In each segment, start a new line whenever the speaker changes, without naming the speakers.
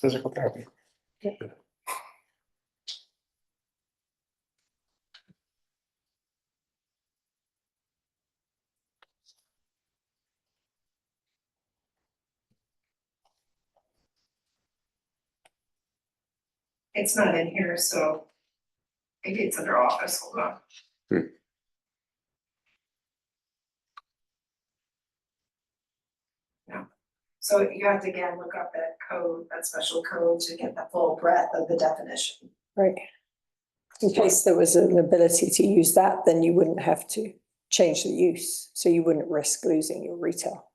physical therapy.
It's not in here, so maybe it's under office, hold on.
Hmm.
No, so you have to again look up that code, that special code to get the full breadth of the definition.
Right. In case there was an ability to use that, then you wouldn't have to change the use, so you wouldn't risk losing your retail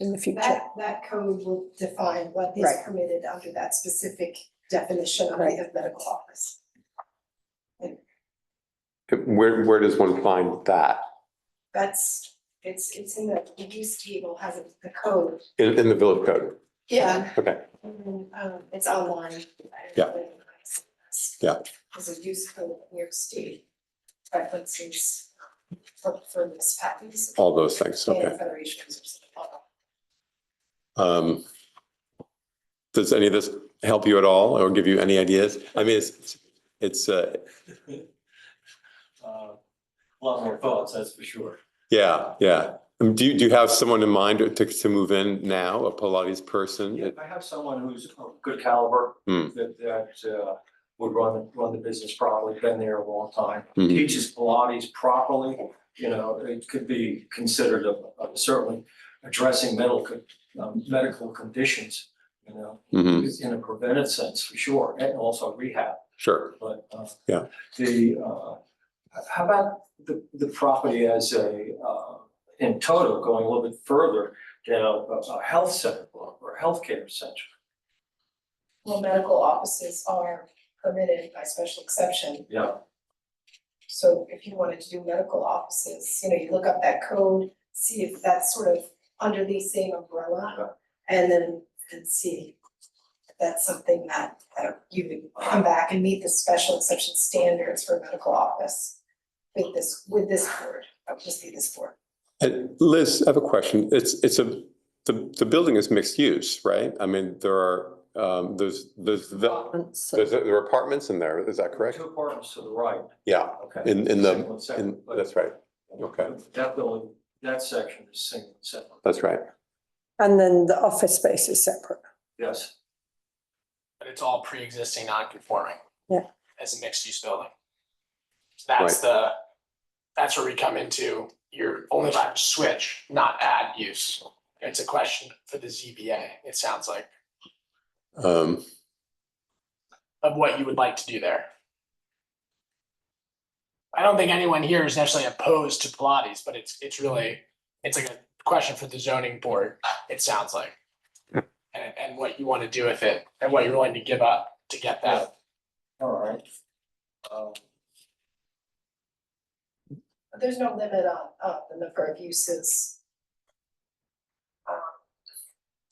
in the future.
That, that code will define what is
Right.
permitted under that specific definition of the
Right.
medical office.
Where, where does one find that?
That's, it's, it's in the, the use table has it- the code.
In, in the village code?
Yeah.
Okay.
Um, it's online.
Yeah. Yeah.
There's a use code, in New York State preferences for, for this package.
All those things, Oh, okay.
And federations uh, or something.
Um, Does any of this help you at all or give you any ideas? I mean, it's, it's, uh,
Uh, A lot more thoughts, that's for sure.
yeah, yeah. Um, Do you, do you have someone in mind to, to move in now, a Pilates person?
Yeah, I have someone who's of good caliber,
Hmm.
that, that uh, would run, run the business properly, been there a long time.
Mhm.
Teaches Pilates properly, you know, it could be considered of, of certainly addressing mental, con- um, medical conditions, you know,
Mhm,
in a preventive sense for sure, and also rehab.
Sure,
But, uh.
Yeah.
The, uh, how about the, the property as a, uh, in total, going a little bit further down, a, a health center or or healthcare center?
Well, medical offices are permitted by special exception,
Yeah,
so if you wanted to do medical offices, you know, you look up that code, see if that's sort of under the same umbrella. And then, and see if that's something that, that you would come back and meet the special exception standards for medical office. With this, with this board, that would just be this board.
And Liz, I have a question. It's, it's a, the, the building is mixed use, right? I mean, there are, um, there's, there's, the-
So
there's, there are apartments in there, is that correct?
two apartments to the right,
Yeah,
okay.
in, in the,
Single
in,
and separate, but
that's right, okay.
That building, that section is single and separate,
that's right.
And then the office space is separate.
yes.
but it's all pre-existing non-conforming.
Yeah.
As a mixed-use building. So That's the, that's where we come into, you're only allowed to switch, not add use. It's a question for the ZBA, it sounds like,
Um,
of what you would like to do there. I don't think anyone here is necessarily opposed to Pilates, but it's, it's really, it's like a question for the zoning board, it sounds like. And, and what you want to do with it, and what you're willing to give up to get that.
All right. Um,
But there's no limit on, on the number of uses. Um,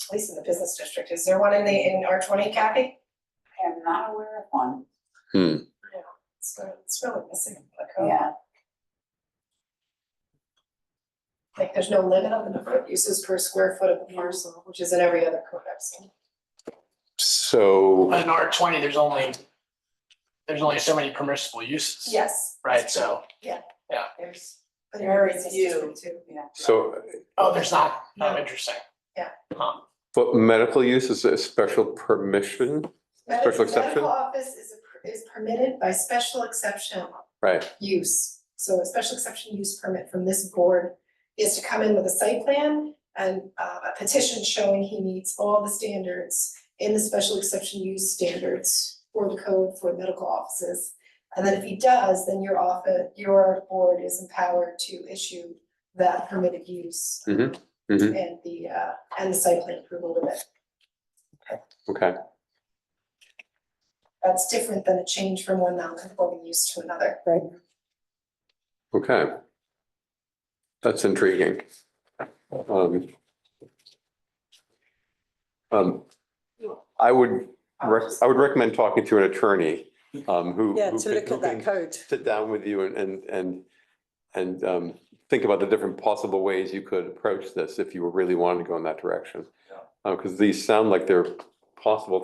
At least in the business district, is there one in the, in R twenty, Kathy?
I am not aware of one,
It's, re- it's really missing oh. from the code.
yeah.
Like, there's no limit on the number of uses per square foot of a parcel, which is in every other code I've seen.
so,
in R twenty, there's only, there's only so many permissible uses.
Yes.
Right, so,
There's.
There is
business
you.
district too.
so,
oh, there's not, oh,
No.
interesting.
Yeah.
Um,
but medical use is a special permission,
Medi-
Special exception?
Medical office is, a- is permitted by special exception
right?
use. So a special exception use permit from this board is to come in with a site plan and uh, a petition showing he meets all the standards in the special exception use standards for the code for medical offices. And then if he does, then your office, your board is empowered to issue that permitted use.
Mhm, mhm.
And the uh, and the site plan approval of it.
Okay,
That's different than a change from one non-conforming use to another.
okay. That's intriguing. Um, um, I would, rec- I would recommend talking to an attorney, um, who.
Yeah,
who
to
can-
look
who
at that
can-
code.
sit down with you and, and, and, and um, think about the different possible ways you could approach this if you were really wanting to go in that direction. Uh,
Yeah.
because these sound like they're possible